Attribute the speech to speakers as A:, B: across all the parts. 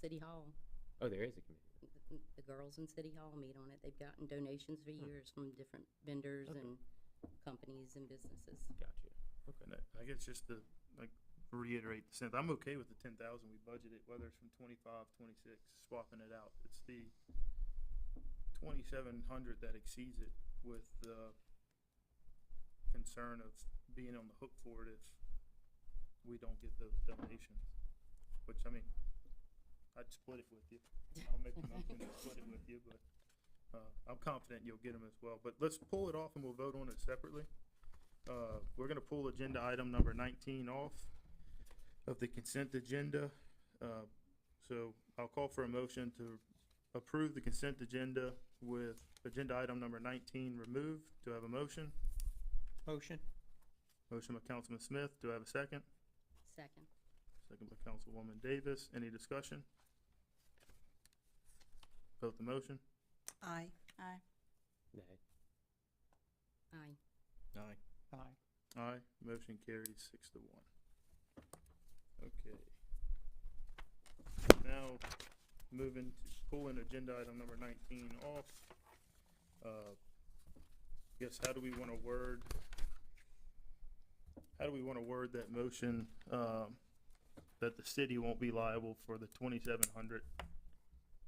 A: City Hall.
B: Oh, there is a committee.
A: The- The girls in City Hall meet on it. They've gotten donations for years from different vendors
B: Okay.
A: and companies and businesses.
B: Gotcha.
C: And I- I guess just to, like, reiterate the sense, I'm okay with the ten thousand we budgeted, whether it's from 25, 26, swapping it out. It's the twenty-seven hundred that exceeds it with the concern of being on the hook for it if we don't get those donations, which, I mean, I'd split it with you. I'll make a motion to split it with you, but, uh, I'm confident you'll get them as well. But let's pull it off and we'll vote on it separately. Uh, we're gonna pull agenda item number nineteen off of the consent agenda. Uh, So I'll call for a motion to approve the consent agenda with agenda item number nineteen removed. Do I have a motion?
D: Motion.
C: Motion by Councilman Smith. Do I have a second?
A: Second.
C: Second by Councilwoman Davis. Any discussion? Vote the motion.
D: Aye.
E: Aye.
B: Nay.
A: Aye.
C: Aye.
D: Aye.
C: Aye. Motion carries six to one. Okay. Now, moving to pulling agenda item number nineteen off. Uh, Guess how do we wanna word? How do we wanna word that motion, um, that the city won't be liable for the twenty-seven hundred?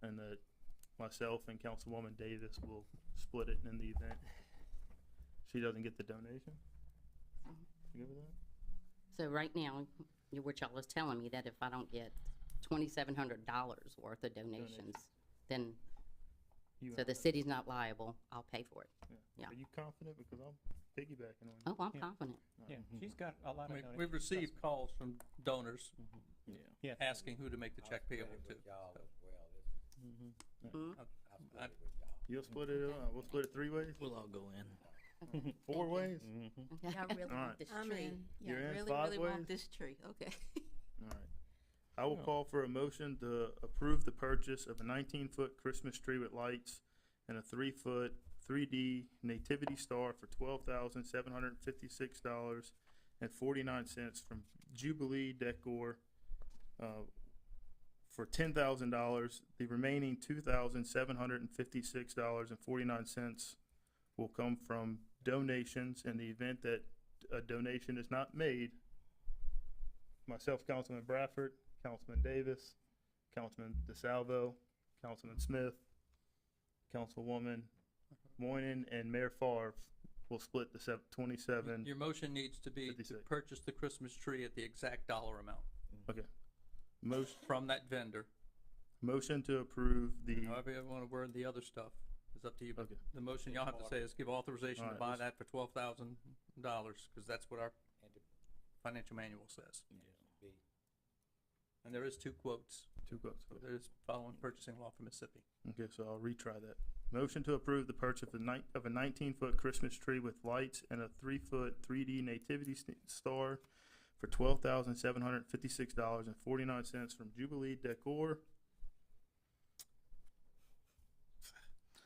C: And that myself and Councilwoman Davis will split it in the event she doesn't get the donation? You good with that?
A: So right now, you- what y'all is telling me that if I don't get twenty-seven hundred dollars worth of donations, then,
C: You
A: so
C: and
A: the
C: I.
A: city's not liable, I'll pay for it. yeah.
C: Are you confident? Because I'm piggybacking on you.
A: Oh, I'm
D: Yeah.
A: confident.
D: Yeah, she's got a lot
F: I
D: of
F: mean,
D: donations.
F: we've received calls from donors
D: Yeah.
F: asking who to make the check payable to. so, I-
C: You'll split it, uh, we'll split it three ways,
G: We'll all go in. Mm-hmm.
C: four ways?
E: Yeah, I really
C: Alright.
E: want this
H: I'm
E: tree.
H: in.
E: Yeah,
C: You're
E: I
C: in
E: really,
C: five
E: really want
C: ways?
E: this tree, okay.
C: Alright. I will call for a motion to approve the purchase of a nineteen-foot Christmas tree with lights and a three-foot, three D nativity star for twelve thousand seven hundred and fifty-six dollars and forty-nine cents from Jubilee Decor, uh, for ten thousand dollars. The remaining two thousand seven hundred and fifty-six dollars and forty-nine cents will come from donations. In the event that a donation is not made, myself, Councilman Bradford, Councilman Davis, Councilman DeSalvo, Councilman Smith, Councilwoman Moynihan, and Mayor Favre will split the sev- twenty-seven.
F: Your motion needs to be to
C: Fifty-six.
F: purchase the Christmas tree at the exact dollar amount
C: Motion,
F: from that vendor.
C: motion to approve the,
F: However you want to word the other stuff is up to you. But
C: Okay.
F: the motion y'all have to say is give authorization to
C: Alright,
F: buy
C: let's-
F: that for twelve thousand dollars, because that's what our financial manual says. And there is two quotes.
C: two quotes. okay.
F: There's following purchasing law for Mississippi.
C: Okay, so I'll retry that. Motion to approve the purchase of a nine, of a nineteen-foot Christmas tree with lights and a three-foot three D nativity st- star for twelve thousand seven hundred and fifty-six dollars and forty-nine cents from Jubilee Decor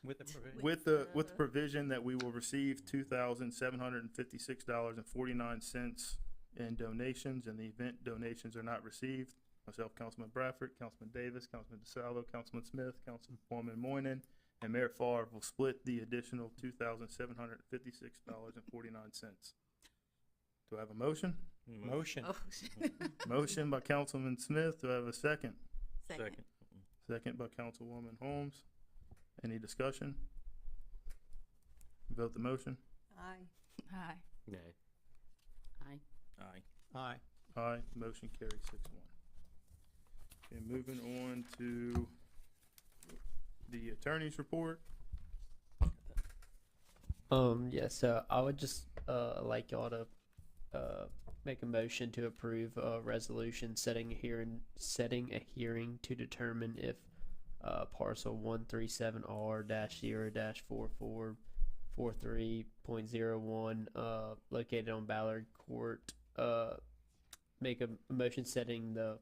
D: With the provision.
C: with the, with the provision that we will receive two thousand seven hundred and fifty-six dollars and forty-nine cents in donations. In the event donations are not received, myself, Councilman Bradford, Councilman Davis, Councilman DeSalvo, Councilman Smith, Councilwoman Moynihan, and Mayor Favre will split the additional two thousand seven hundred and fifty-six dollars and forty-nine cents. Do I have a motion?
D: Mm-hmm. Motion.
E: Oh,
C: Motion by Councilman Smith. Do I have a second?
E: Second.
C: Second by Councilwoman Holmes. Any discussion? Vote the motion.
E: Aye.
H: Aye.
B: Nay.
A: Aye.
G: Aye.
D: Aye.
C: Aye, motion carries six one. Okay, moving on to the attorney's report.
I: Um, yeah, so I would just uh, like y'all to uh, make a motion to approve a resolution setting a hearing, setting a hearing to determine if uh, parcel one three seven R dash zero dash four four four three point zero one uh, located on Ballard Court uh, make a motion setting the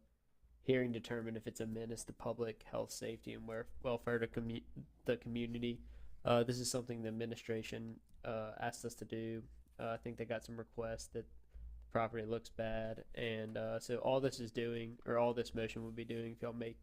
I: hearing determine if it's a menace to public health, safety, and where, welfare to commu- the community. Uh, this is something the administration uh, asked us to do. Uh, I think they got some requests that the property looks bad, and uh, so all this is doing, or all this motion would be doing, if y'all make